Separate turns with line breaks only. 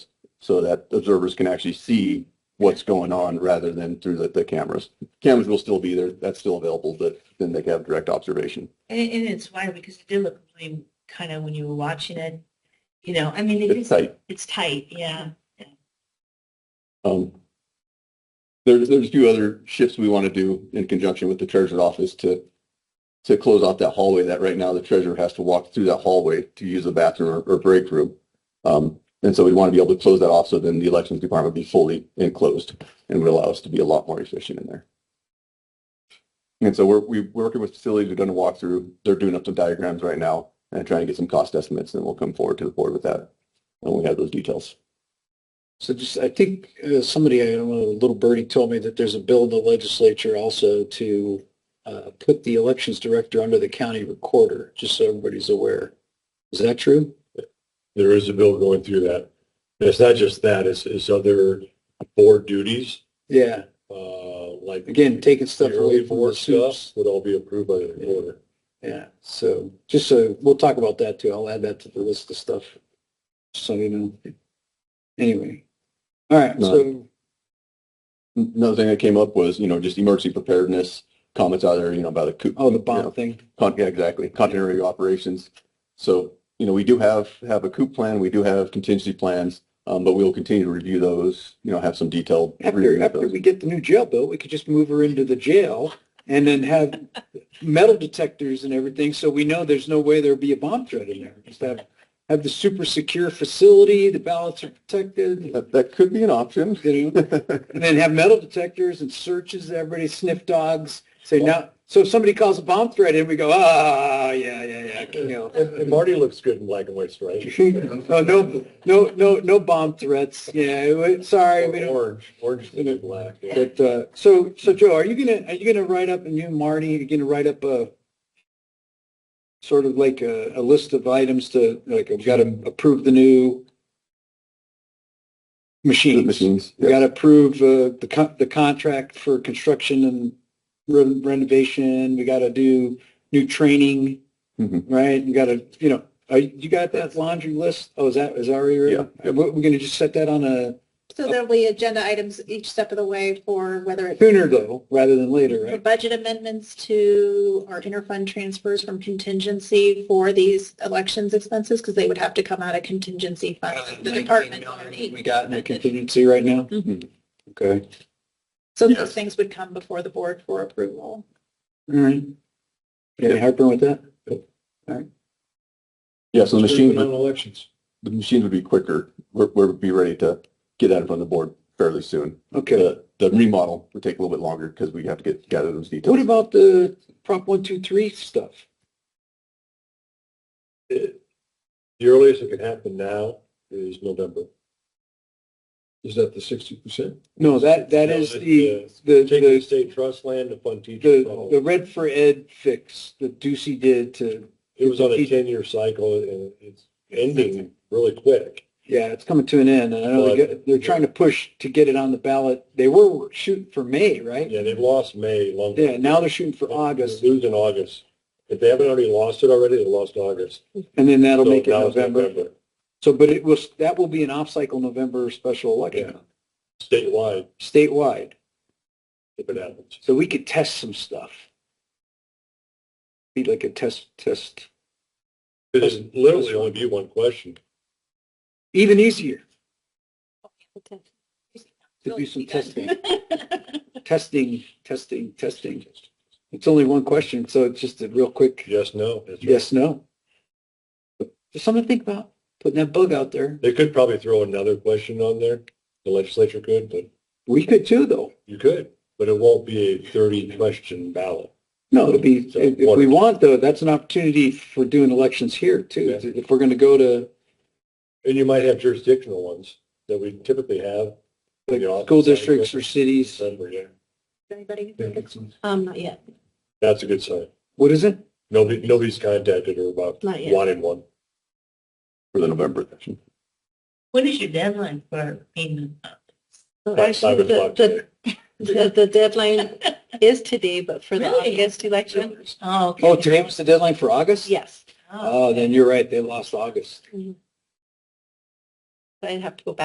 so that observers can actually see what's going on rather than through the, the cameras. Cameras will still be there, that's still available, but then they can have direct observation.
And, and it's wild because it did look really kind of when you were watching it, you know, I mean, it
It's
is,
tight.
it's tight, yeah.
Um, There's, there's a few other shifts we want to do in conjunction with the treasurer's office to, to close off that hallway that right now the treasurer has to walk through that hallway to use the bathroom or, or break room. Um, And so we want to be able to close that off so then the elections department would be fully enclosed and would allow us to be a lot more efficient in there. And so we're, we're working with facilities, we've done a walkthrough, they're doing up some diagrams right now and trying to get some cost estimates and we'll come forward to the board with that when we have those details.
So just, I think uh, somebody, I don't know, little birdie told me that there's a bill in the legislature also to uh, put the elections director under the county recorder, just so everybody's aware. Is that true?
there is a bill going through that. And it's not just that, it's, it's other board duties,
Yeah.
uh, like.
Again, taking stuff
The early
away from the
board
suits.
stuff would all be approved by the recorder.
Yeah. So just so, we'll talk about that too. I'll add that to the list of stuff. So you know. Anyway. All right.
No.
So
Another thing that came up was, you know, just emergency preparedness comments out there, you know, about the coup.
oh, the
you know,
bomb thing.
con- yeah, exactly, continuity of operations. So, you know, we do have, have a coup plan, we do have contingency plans, um, but we'll continue to review those, you know, have some detailed.
After,
review of
after
those.
we get the new jail built, we could just move her into the jail and then have metal detectors and everything, so we know there's no way there'd be a bomb threat in there. Just have, have the super secure facility, the ballots are protected,
That, that could be an option.
you know, and then have metal detectors and searches, everybody sniff dogs, say now, so if somebody calls a bomb threat in, we go, ah, yeah, yeah, yeah, you know.
And and Marty looks good in black and white stripes.
Oh, no, no, no, no bomb threats, yeah, we- sorry, we
Or
don't.
Orange, orange and black. yeah.
But, uh, so, so Joe, are you gonna, are you gonna write up, and you and Marty, are you gonna write up a sort of like a, a list of items to, like, we've got to approve the new
The
machines?
Machines.
We
yeah.
got to approve, uh, the con, the contract for construction and re- renovation. We got to do new training,
Mhm.
right? You got to, you know, are, you you got that laundry list? Oh, is that, is that already written?
Yeah, yeah.
We're, we're gonna just set that on a
So there'll be agenda items each step of the way for whether it's
sooner though, rather than later,
for
right?
budget amendments to our interfund transfers from contingency for these elections expenses, because they would have to come out of contingency funds. The department
We
already.
got in a contingency right now?
Mhm.
Mm-hmm.
Okay,
So
Yes.
those things would come before the board for approval.
all right. You have Any heartburn with that?
Yeah, so the machines,
On
would-
elections.
the machines would be quicker. We're, we'll be ready to get that in front of the board fairly soon.
Okay.
The, the remodel would take a little bit longer because we have to get, gather those details.
What about the Prop 123 stuff?
The earliest it can happen now is November. Is that the sixty percent?
No, that, that
No,
is
that's
the, the,
Take the
the,
state trust land to fund teachers.
the, the Red for Ed fix that Ducey did to,
It was on
the
a
teach-
ten-year cycle and it's ending really quick.
yeah, it's coming to an end. And I know they
But-
get- they're trying to push to get it on the ballot. They were shooting for May, right?
Yeah, they've lost May long.
Yeah, now they're shooting for August
Lose in August. If they haven't already lost it already, they lost August.
and then that'll
So
make it
now it's
November. So, but it was, that will be an off-cycle November special election
Statewide,
statewide.
if it happens.
So we could test some stuff. Be like a test, test,
It is literally only be one question.
even easier to do some testing, testing, testing, testing. It's only one question, so it's just a real quick
Yes, no. that's right.
yes, no. Just something to think about, putting that bug out there.
They could probably throw another question on there. The legislature could, but
We could too, though.
you could, but it won't be a thirty-question ballot.
No, it'd be, if if we want though, that's an opportunity for doing elections here too. If we're going to go to
And you might have jurisdictional ones that we typically have.
like school districts or cities,
December, yeah.
Anybody? Um, not yet,
That's a good sign.
what is it?
Nobody, nobody's contacted her about
not yet.
wanting one.
For the November session.
What is your deadline for payment?
Five
Actually,
o'clock
the,
today.
the, the- the deadline is today, but for the
Really?
August election,
Oh, okay.
Oh, today was the deadline for August?
yes,
Oh, then you're right. They lost August.
I'd have to go back